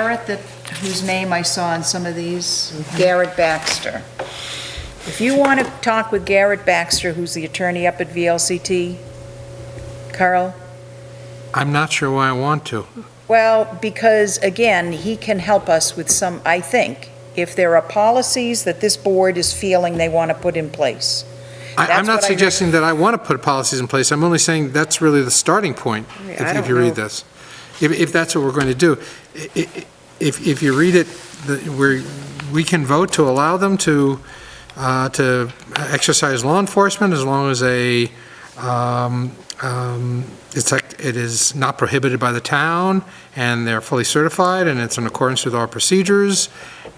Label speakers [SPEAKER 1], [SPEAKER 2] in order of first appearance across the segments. [SPEAKER 1] Garrett that, whose name I saw on some of these, Garrett Baxter. If you want to talk with Garrett Baxter, who's the attorney up at VLCT, Carl,
[SPEAKER 2] I'm not sure why I want to.
[SPEAKER 1] well, because again, he can help us with some, I think, if there are policies that this board is feeling they want to put in place.
[SPEAKER 2] I-
[SPEAKER 1] That's
[SPEAKER 2] I'm not
[SPEAKER 1] what I heard.
[SPEAKER 2] suggesting that I want to put policies in place, I'm only saying that's really the starting point,
[SPEAKER 1] Yeah,
[SPEAKER 2] if
[SPEAKER 1] I
[SPEAKER 2] if
[SPEAKER 1] don't
[SPEAKER 2] you
[SPEAKER 1] know.
[SPEAKER 2] read this. If, if that's what we're going to do. I- i- i- If, if you read it, the- we're, we can vote to allow them to, uh, to exercise law enforcement as long as a, um, um, it's like, it is not prohibited by the town, and they're fully certified, and it's in accordance with our procedures,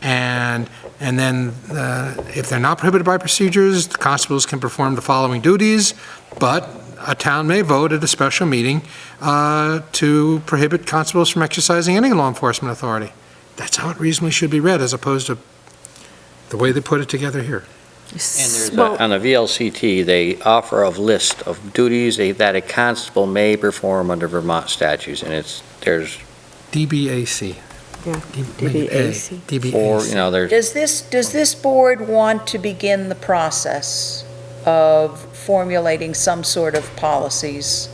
[SPEAKER 2] and and then, uh, if they're not prohibited by procedures, the constables can perform the following duties, but a town may vote at a special meeting uh, to prohibit constables from exercising any law enforcement authority. That's how it reasonably should be read, as opposed to the way they put it together here.
[SPEAKER 3] And there's,
[SPEAKER 4] Well-
[SPEAKER 3] a- on the VLCT, they offer a list of duties a- that a constable may perform under Vermont statutes, and it's, there's
[SPEAKER 2] DBAC.
[SPEAKER 4] Yeah,
[SPEAKER 2] DBAC.
[SPEAKER 3] four, you know, there's,
[SPEAKER 1] Does this, does this board want to begin the process of formulating some sort of policies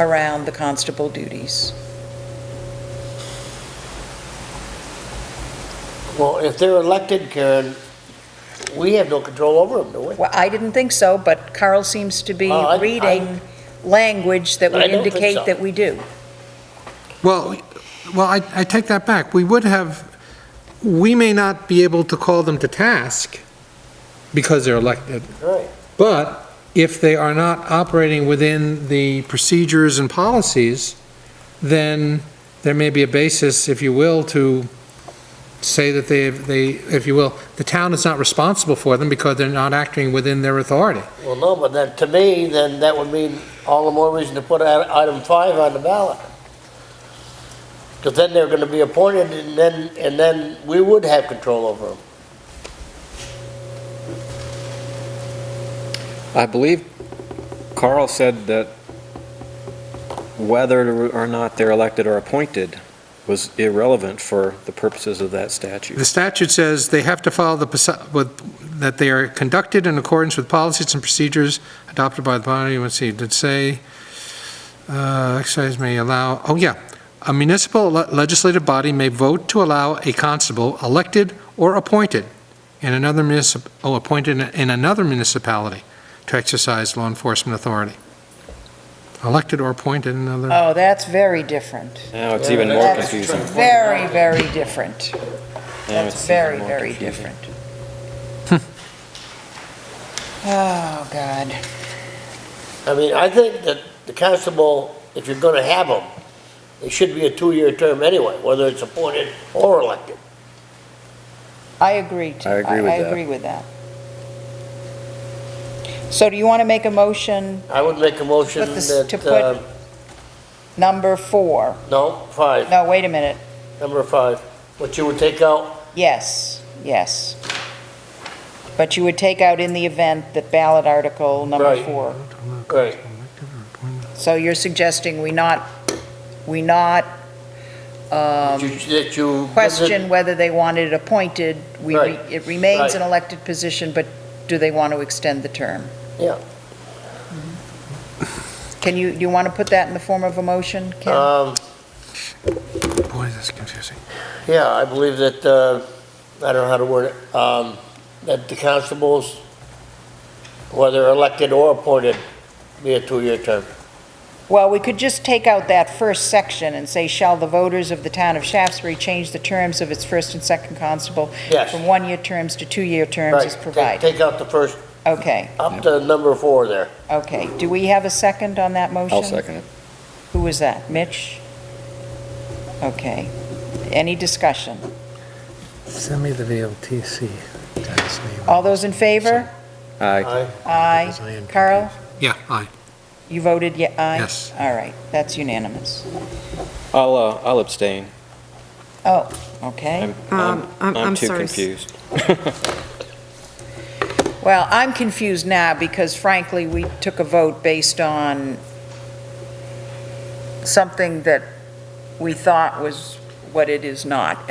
[SPEAKER 1] around the constable duties?
[SPEAKER 5] Well, if they're elected, Karen, we have no control over them, do we?
[SPEAKER 1] Well, I didn't think so, but Carl seems to be
[SPEAKER 5] Well, I- I-
[SPEAKER 1] reading language that would
[SPEAKER 5] I don't think so.
[SPEAKER 1] indicate that we do.
[SPEAKER 2] Well, well, I, I take that back. We would have, we may not be able to call them to task because they're elected,
[SPEAKER 5] Right.
[SPEAKER 2] but if they are not operating within the procedures and policies, then there may be a basis, if you will, to say that they, they, if you will, the town is not responsible for them because they're not acting within their authority.
[SPEAKER 5] Well, no, but then, to me, then that would mean all the more reason to put i- item five on the ballot. Because then they're gonna be appointed, and then, and then we would have control over them.
[SPEAKER 6] I believe Carl said that whether or not they're elected or appointed was irrelevant for the purposes of that statute.
[SPEAKER 2] The statute says they have to follow the, posi- with- that they are conducted in accordance with policies and procedures adopted by the body, let's see, did say, uh, exercise may allow, oh yeah, a municipal le- legislative body may vote to allow a constable elected or appointed in another municip, oh, appointed in- in another municipality to exercise law enforcement authority. Elected or appointed in another,
[SPEAKER 1] Oh, that's very different.
[SPEAKER 6] Now it's even more
[SPEAKER 1] That's
[SPEAKER 6] confusing.
[SPEAKER 1] Very, very different.
[SPEAKER 6] Now
[SPEAKER 1] That's
[SPEAKER 6] it's even
[SPEAKER 1] very,
[SPEAKER 6] more
[SPEAKER 1] very
[SPEAKER 6] confusing.
[SPEAKER 1] different. Oh, God.
[SPEAKER 5] I mean, I think that the constable, if you're gonna have them, it should be a two-year term anyway, whether it's appointed or elected.
[SPEAKER 1] I agree to.
[SPEAKER 6] I agree with
[SPEAKER 1] I
[SPEAKER 6] that.
[SPEAKER 1] agree with that. So do you want to make a motion,
[SPEAKER 5] I would make a motion
[SPEAKER 1] Put this- to
[SPEAKER 5] that,
[SPEAKER 1] put-
[SPEAKER 5] uh,
[SPEAKER 1] number four?
[SPEAKER 5] no, five,
[SPEAKER 1] No, wait a minute.
[SPEAKER 5] number five, what you would take out,
[SPEAKER 1] Yes, yes. But you would take out in the event that ballot article number
[SPEAKER 5] Right.
[SPEAKER 1] four.
[SPEAKER 5] right,
[SPEAKER 1] So you're suggesting we not, we not
[SPEAKER 5] that
[SPEAKER 1] um,
[SPEAKER 5] you- that you.
[SPEAKER 1] question whether they want it appointed? We re-
[SPEAKER 5] Right,
[SPEAKER 1] It remains
[SPEAKER 5] right.
[SPEAKER 1] an elected position, but do they want to extend the term?
[SPEAKER 5] Yeah.
[SPEAKER 1] Can you, do you want to put that in the form of a motion, Ken?
[SPEAKER 5] Um,
[SPEAKER 2] boy, that's confusing.
[SPEAKER 5] Yeah, I believe that, uh, I don't know how to word it, um, that the constables, whether elected or appointed, be a two-year term.
[SPEAKER 1] Well, we could just take out that first section and say, shall the voters of the town of Shaftesbury change the terms of its first and second constable
[SPEAKER 5] Yes.
[SPEAKER 1] from one-year terms to two-year terms
[SPEAKER 5] Right.
[SPEAKER 1] as
[SPEAKER 5] Take-
[SPEAKER 1] provided?
[SPEAKER 5] Take out the first,
[SPEAKER 1] Okay,
[SPEAKER 5] up to number four there.
[SPEAKER 1] okay. Do we have a second on that motion?
[SPEAKER 3] I'll second it.
[SPEAKER 1] Who was that? Mitch? Okay. Any discussion?
[SPEAKER 2] Send me the VLTC.
[SPEAKER 1] All those in favor?
[SPEAKER 3] Aye.
[SPEAKER 5] Aye.
[SPEAKER 1] Aye. Carl,
[SPEAKER 2] Yeah, aye,
[SPEAKER 1] you voted ye- aye?
[SPEAKER 2] Yes.
[SPEAKER 1] All right, that's unanimous.
[SPEAKER 6] I'll, uh, I'll abstain.
[SPEAKER 1] Oh, okay.
[SPEAKER 6] I'm, I'm,
[SPEAKER 4] Um, I'm-
[SPEAKER 6] I'm
[SPEAKER 4] I'm
[SPEAKER 6] too
[SPEAKER 4] sorry.
[SPEAKER 6] confused.
[SPEAKER 1] Well, I'm confused now because frankly, we took a vote based on something that we thought was what it is not.